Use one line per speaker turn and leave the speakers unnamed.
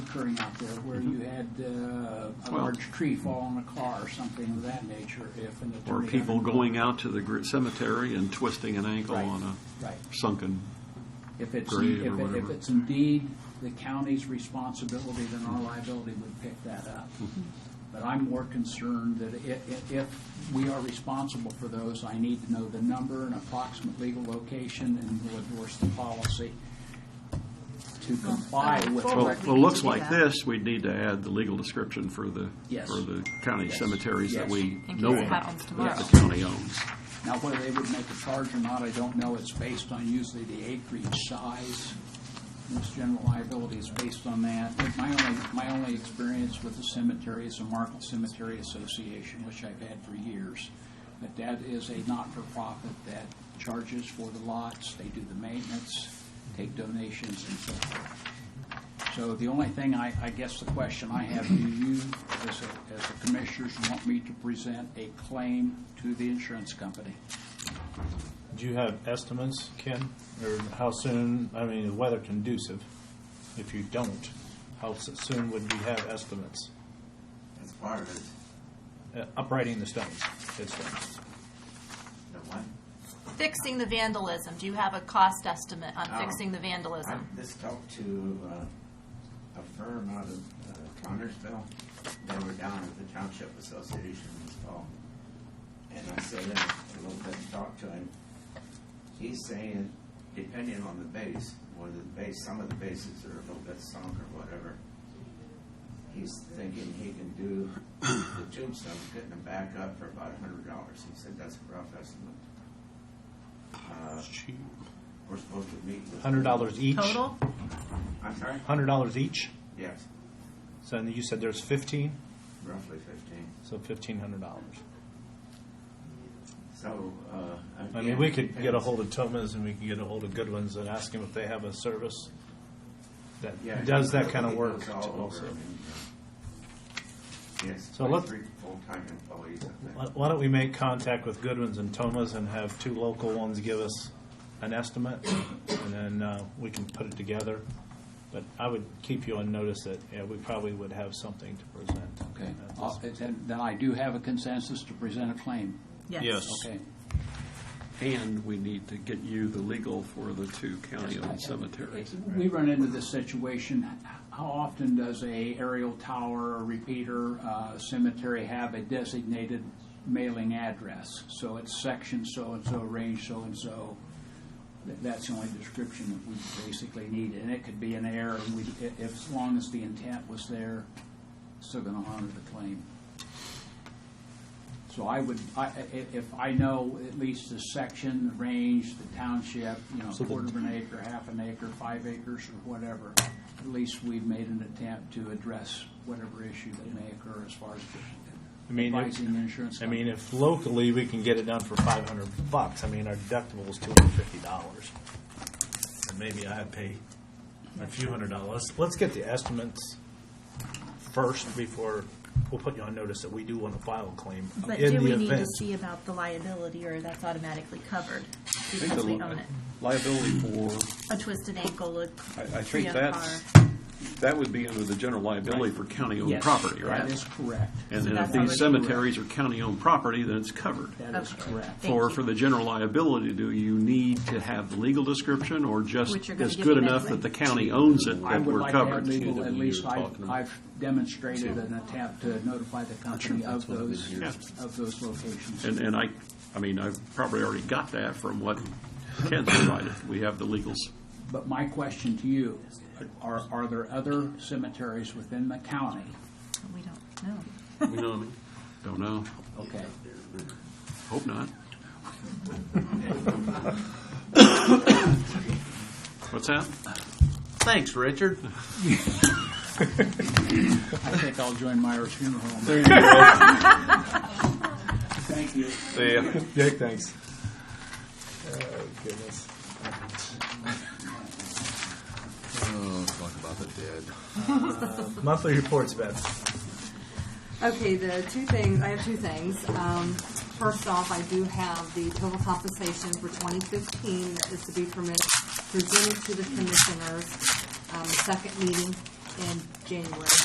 occurring out there where you had uh, a
Mm-hmm. Well-
large tree fall on a car or something of that nature, if an
Or
Oh,
attorney.
people going out to the gr- cemetery and twisting an ankle
Right.
on
Right.
a sunken,
If it's, if
grave or
it- if
whatever.
it's indeed the county's responsibility, then our liability would pick that up.
Mm-hmm.
But I'm more concerned that if, if we are responsible for those, I need to know the number and approximate legal location and will endorse the policy to comply with.
well,
Forward,
it
we need
looks
to do
like
that.
this, we'd need to add the legal description for the,
Yes.
for the county
Yes.
cemeteries that
Yes.
we
In
know
case it
about,
happens
that the
tomorrow.
county owns.
Now, whether they would make a charge or not, I don't know. It's based on usually the acreage size. This general liability is based on that. But My only, my only experience with the cemetery is the Market Cemetery Association, which I've had for years. But that is a not-for-profit that charges for the lots, they do the maintenance, take donations and so forth. So the only thing, I, I guess the question I have, do you, as a, as a commissioners, want me to present a claim to the insurance company?
Do you have estimates, Ken, or how soon, I mean, the weather conducive? If you don't, how s- soon would we have estimates?
As far as
Uh, Uprighting the stones, dead stones.
the one,
Fixing the vandalism, do you have a cost estimate on
Oh.
fixing the
I
vandalism?
just talked to uh, a firm out of uh, Connersville. They were down at the Township Association this fall. And I said in a little bit and talked to him. He's saying, depending on the base, whether the base, some of the bases are a little bit sunk or whatever. He's thinking he can do the tombstones, getting them back up for about a hundred dollars. He said that's a rough estimate. Uh, We're supposed to meet with.
Hundred dollars each?
Total?
I'm sorry?
Hundred dollars each?
Yes,
So then you said there's fifteen,
roughly fifteen.
so fifteen hundred dollars.
So, uh.
I mean, we could get a hold of Thomas and we could get a hold of Goodwin's and ask him if they have a service that does that kind of work also.
uh, Yes,
So
like
let's-
three full-time employees, I think.
Why why don't we make contact with Goodwin's and Thomas and have two local ones give us an estimate, and then uh, we can put it together. But I would keep you on notice that, yeah, we probably would have something to present.
Okay,
at
Uh,
this-
then, then I do have a consensus to present a claim,
Yes.
okay?
And we need to get you the legal for the two county-owned cemeteries.
We run into this situation, how often does a aerial tower, a repeater, uh, cemetery have a designated mailing address? So it's section so-and-so, range so-and-so. Th- That's the only description that we basically need, and it could be an error, and we, i- if, as long as the intent was there, still gonna honor the claim. So I would, I, i- if I know at least the section, the range, the township, you know,
So the-
quarter of an acre, half an acre, five acres, or whatever, at least we've made an attempt to address whatever issue that may occur as far as
I mean, if-
advising the insurance
I
company.
mean, if locally, we can get it done for five hundred bucks, I mean, our deductible is two hundred and fifty dollars. And maybe I pay a few hundred dollars. Let's get the estimates first before, we'll put you on notice that we do want to file a claim
But
in
do we
the
need to
event.
see about the liability, or that's automatically covered
I think
because
the
we
li-
own it?
Liability for
A twisted ankle, a
I, I
tree
think
on a car.
that's, that would be under the general liability for county-owned
Yes,
property, right?
That is correct,
And then if
That's
these
already-
cemeteries are county-owned property, then it's covered.
that is
Okay.
correct.
Thank
For,
you.
for the general liability, do you need to have the legal description or just
Which you're gonna
it's
give
good
me
enough
anyway.
that the county owns it
I
that
would
we're
like to have
covered?
legal, at least I've,
talking about.
I've demonstrated an attempt to notify the company of those, of those locations.
And, and I, I mean, I've probably already got that from what Ken provided. We have the legals.
But my question to you, are, are there other cemeteries within the county?
We don't know.
You know what I mean? Don't know.
Okay,
Hope not. What's that?
Thanks, Richard.
I think I'll join Myers Funeral Home. Thank you.
See ya.
Jake, thanks. Oh, goodness.
Oh, talk about the dead.
Uh, Monthly reports, Beth.
Okay, the two things, I have two things. Um, first off, I do have the total compensation for twenty fifteen that is to be permitted, presented to the commissioners, um, second meeting in January.